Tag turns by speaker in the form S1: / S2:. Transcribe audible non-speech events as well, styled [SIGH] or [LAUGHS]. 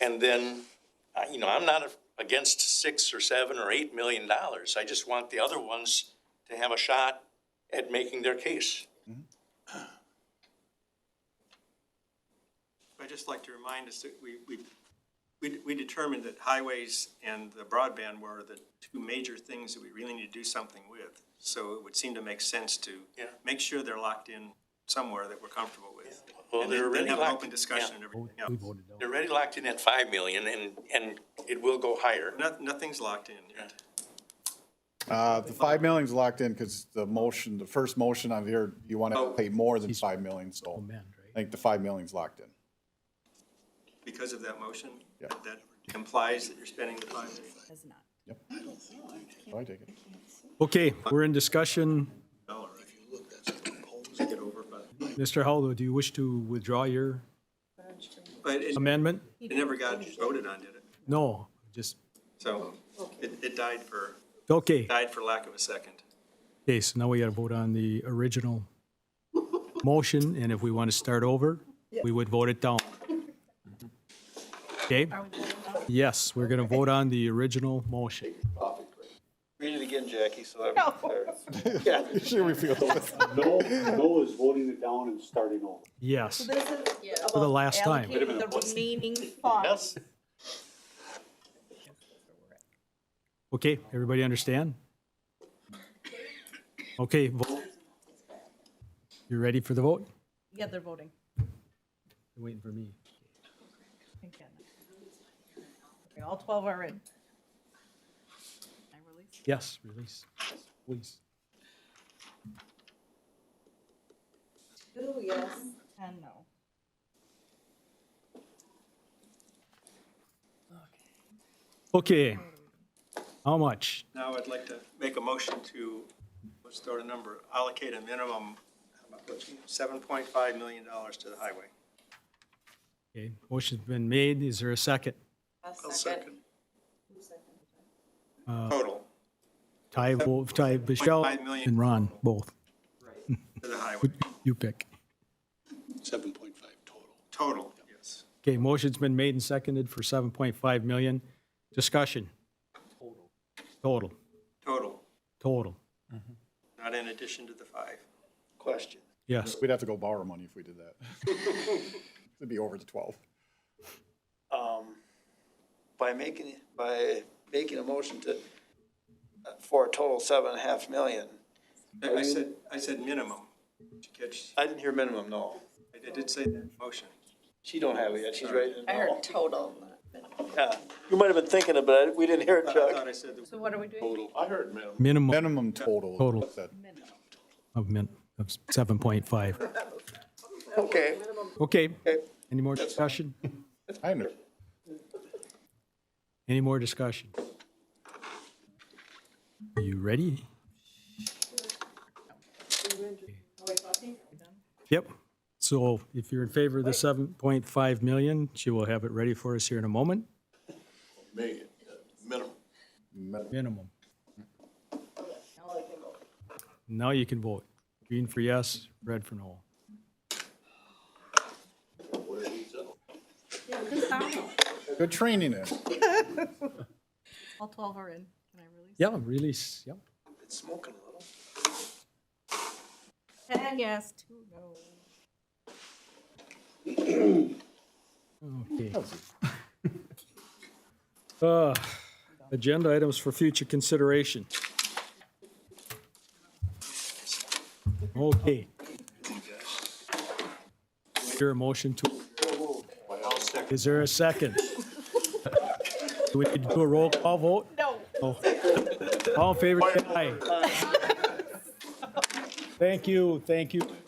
S1: And then, I- you know, I'm not against six or seven or eight million dollars. I just want the other ones to have a shot at making their case.
S2: I'd just like to remind us that we, we, we- we determined that highways and the broadband were the two major things that we really need to do something with. So it would seem to make sense to
S1: Yeah.
S2: make sure they're locked in somewhere that we're comfortable with.
S1: Well,
S2: And
S1: they're
S2: then-
S1: already
S2: then have an
S1: locked-
S2: open discussion and everything else.
S1: They're already locked in at five million and, and it will go higher.
S2: Noth- Nothing's locked in yet.
S3: Uh, the five million's locked in because the motion, the first motion on here, you want to pay more than five million, so I think the five million's locked in.
S2: Because of that motion, that implies that you're spending the five million
S4: Does not.
S3: So I take it.
S5: Okay, we're in discussion.
S2: dollars. Get over, but,
S5: Mr. Haldo, do you wish to withdraw your
S2: but it
S5: amendment?
S2: it never got voted on, did it?
S5: No, just,
S2: So it, it died for,
S5: okay.
S2: died for lack of a second.
S5: Okay, so now we got to vote on the original motion, and if we want to start over, we would vote it down. Okay? Yes, we're going to vote on the original motion.
S2: Read it again, Jackie, so that we can start.
S3: Sure, we feel with-
S6: No, no is voting it down and starting over.
S5: Yes,
S4: This is
S5: for the
S4: about
S5: last time.
S4: allocating the remaining funds.
S5: Okay, everybody understand? Okay, vote. You ready for the vote?
S4: Yeah, they're voting.
S5: They're Waiting for me.
S4: Thank goodness. Okay, All 12 are in. I release.
S5: Yes, release, please.
S4: Ooh, yes. And no.
S5: Okay. How much?
S2: Now I'd like to make a motion to, let's throw a number, allocate a minimum, seven point five million dollars to the highway.
S5: Okay, motion's been made. Is there a second?
S2: I'll second. Total
S5: Ty, Wolf, Ty, Michelle,
S2: $7.5 million.
S5: and Ron, both.
S2: to the highway,
S5: You pick.
S6: Seven point five total.
S2: total, yes.
S5: Okay, motion's been made and seconded for 7.5 million. Discussion? Total.
S2: Total,
S5: Total,
S2: not in addition to the five.
S7: Question.
S5: yes.
S3: [LAUGHS] We'd have to go borrow money if we did that. It'd be over the twelve.
S7: Um, By making, by making a motion to, uh, for a total seven and a half million,
S2: I I said, I said minimum. Did you catch,
S7: I didn't hear minimum, no.
S2: I did say that in motion.
S7: She don't have it yet, she's ready to
S8: I heard
S7: know.
S8: total.
S7: Yeah. You might have been thinking of it, we didn't hear it,
S2: I
S7: Chuck.
S2: thought I said, the-
S4: So what are we doing?
S7: I heard minimum.
S5: Minimum
S3: Minimum total.
S5: Total.
S3: That-
S5: of min, of 7.5.
S7: Okay,
S5: Okay, any more discussion?
S3: I under,
S5: Any more discussion? Are you ready? Yep. So if you're in favor of the 7.5 million, she will have it ready for us here in a moment. Million, minimum. Minimum. Now you can vote. Green for yes, red for no.
S3: good training is.
S4: All 12 are in. Can I release?
S5: Yeah, release, yep.
S7: it's smoking a little.
S4: 10 yes, two no.
S5: Okay. Uh, Agenda items for future consideration. Okay. Is there a motion to? Is there a second? [LAUGHS] Do we need to do a roll call vote?
S4: No.
S5: All in favor, say aye. Thank you, thank you,